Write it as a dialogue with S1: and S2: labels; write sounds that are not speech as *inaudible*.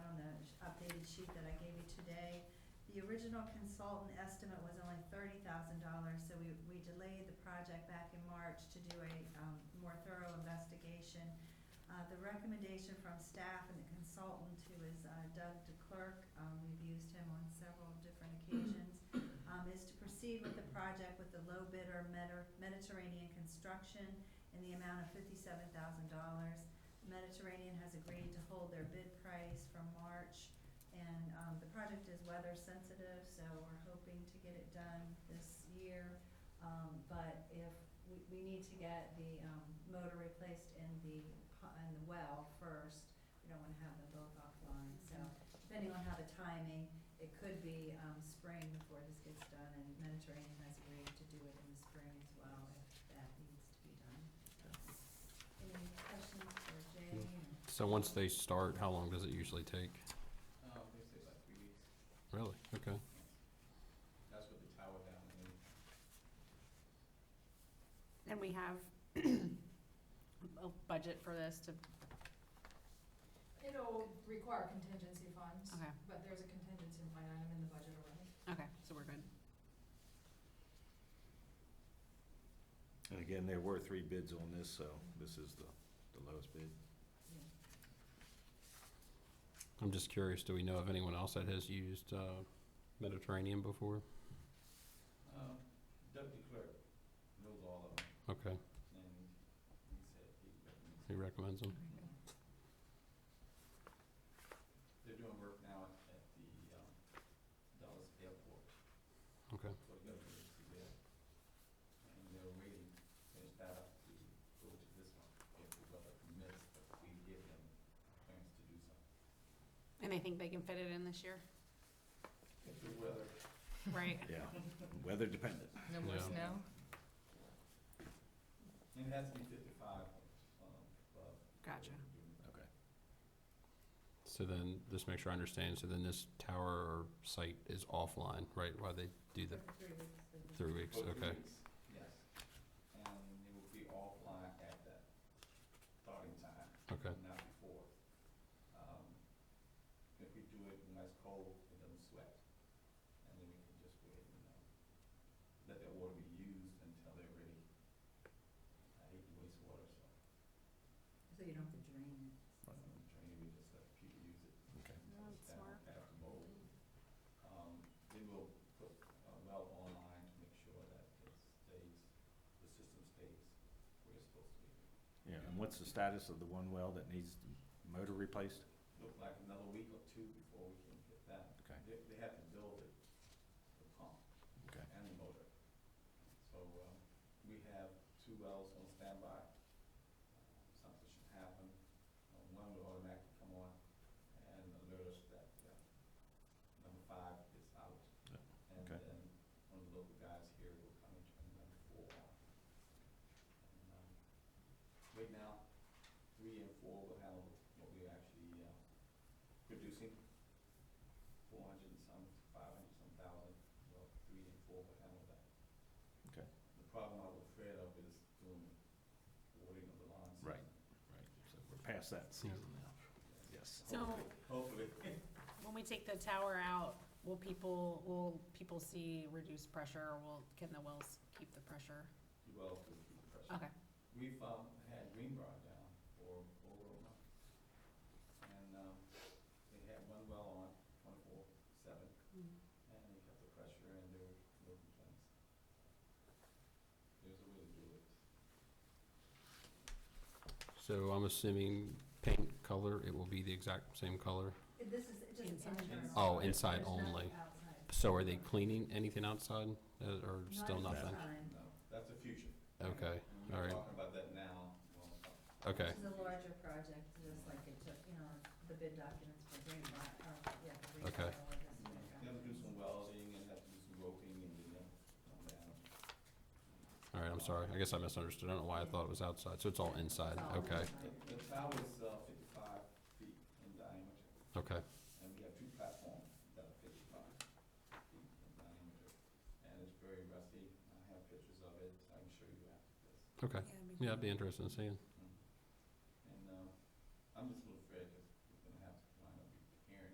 S1: sheet that I gave you today. The original consultant estimate was only thirty thousand dollars, so we, we delayed the project back in March to do a, um, more thorough investigation. Uh, the recommendation from staff and the consultant, who is uh, Doug DeClerc, um, we've used him on several different occasions, um, is to proceed with the project with the low bidder Mediter- Mediterranean Construction in the amount of fifty-seven thousand dollars. Mediterranean has agreed to hold their bid price from March, and, um, the project is weather sensitive, so we're hoping to get it done this year. Um, but if, we, we need to get the, um, motor replaced in the, pu- in the well first. We don't wanna have them both offline, so depending on how the timing, it could be, um, spring before this gets done, and Mediterranean has agreed to do it in the spring as well, if that needs to be done. Any questions for Jay? or-
S2: So once they start, how long does it usually take?
S3: Um, they say about three weeks,
S2: Really? Okay.
S3: that's with the tower down and then
S4: And we have *clears throat* a budget for this to,
S5: It'll require contingency funds,
S4: okay,
S5: but there's a contingency line item in the budget already.
S4: okay, so we're good.
S6: And again, there were three bids on this, so this is the, the lowest bid.
S2: I'm just curious, do we know of anyone else that has used uh, Mediterranean before?
S3: Um, Doug DeClerc knows all of them,
S2: Okay,
S3: and he said he recommends.
S2: he recommends them.
S3: They're doing work now at at the, um, Dallas airport.
S2: Okay.
S3: For the government to get, and they're waiting, finish that up to go to this one, if the weather permits, but we give them plans to do something.
S4: And they think they can fit it in this year?
S3: If the weather
S4: Right.
S3: *laughs*
S6: Yeah, weather dependent.
S5: No
S2: more Yeah.
S5: snow?
S3: And it has to be fifty-five, um, above.
S4: Gotcha.
S6: Okay.
S2: So then, just make sure I understand, so then this tower or site is offline, right, while they do the
S1: For Three weeks. so this-
S2: three weeks?
S3: For three
S2: Okay,
S3: weeks, Yes, and it will be offline at that starting time,
S2: okay,
S3: not before. Um, If we do it when it's cold, it doesn't sweat, and then we can just go ahead and, um, let that water be used until they're ready. I hate to waste water, so
S1: So you don't have to drain
S3: I'm trying to just let people use it.
S6: Okay.
S4: No, that's
S3: Down
S4: smart.
S3: at the mold. Um, they will put a well online to make sure that it stays, the system stays where it's supposed to be.
S6: Yeah, and what's the status of the one well that needs the motor replaced?
S3: Look like another week or two before we can get that.
S6: Okay.
S3: They, they have to build it, the pump
S6: Okay.
S3: and the motor. So, uh, we have two wells on standby. Something should happen, Uh, one will automatically come on and alert us that, uh, number five is out.
S6: Yeah,
S3: And
S6: okay.
S3: then one of the local guys here will come and turn number four on. And, um, Right now, three and four will handle what we're actually, uh, producing, four hundred and some, five hundred some thousand, well, three and four will handle that.
S6: Okay.
S3: The problem I'm afraid of is doing watering of the lawns.
S6: Right. Right, so we're past that season now. Yes.
S4: So-
S3: Hopefully.
S4: When we take the tower out, will people, will people see reduced pressure, or will, can the wells keep the pressure?
S3: You will have to keep the pressure.
S4: Okay,
S3: We've, um, had Greenbrier down for over a month. And, um, they had one well on twenty-four seven, and they kept the pressure and there were no complaints. There's a way to do it.
S2: so I'm assuming paint color, it will be the exact same color?
S1: it. This is just
S4: Inside.
S1: internal.
S2: Oh, inside
S1: There's nothing
S2: only.
S1: outside.
S2: So are they cleaning anything outside, uh,
S1: Not
S2: or still nothing?
S1: inside.
S3: No, that's the future.
S2: Okay,
S3: And
S2: all
S3: We're
S2: right.
S3: talking about that now. Well,
S2: okay,
S1: This is a larger project, just like it took, you know, the bid documents for Green Lot, uh, yeah. for Green
S2: Okay.
S1: Lot, all of this
S3: You
S1: work.
S3: have to do some welding and have to do some roping and, you know, come down.
S2: all right, I'm sorry, I guess I misunderstood, I don't know why I thought it was outside, so it's all inside,
S1: It's all
S2: okay,
S1: inside.
S3: The, the tower is uh, fifty-five feet in diameter,
S2: okay,
S3: and we have two platforms that are fifty-five feet in diameter. And it's very rusty, I have pictures of it, I can show you after this.
S2: okay. Yeah, I'd be interested in seeing.
S3: And, uh, I'm just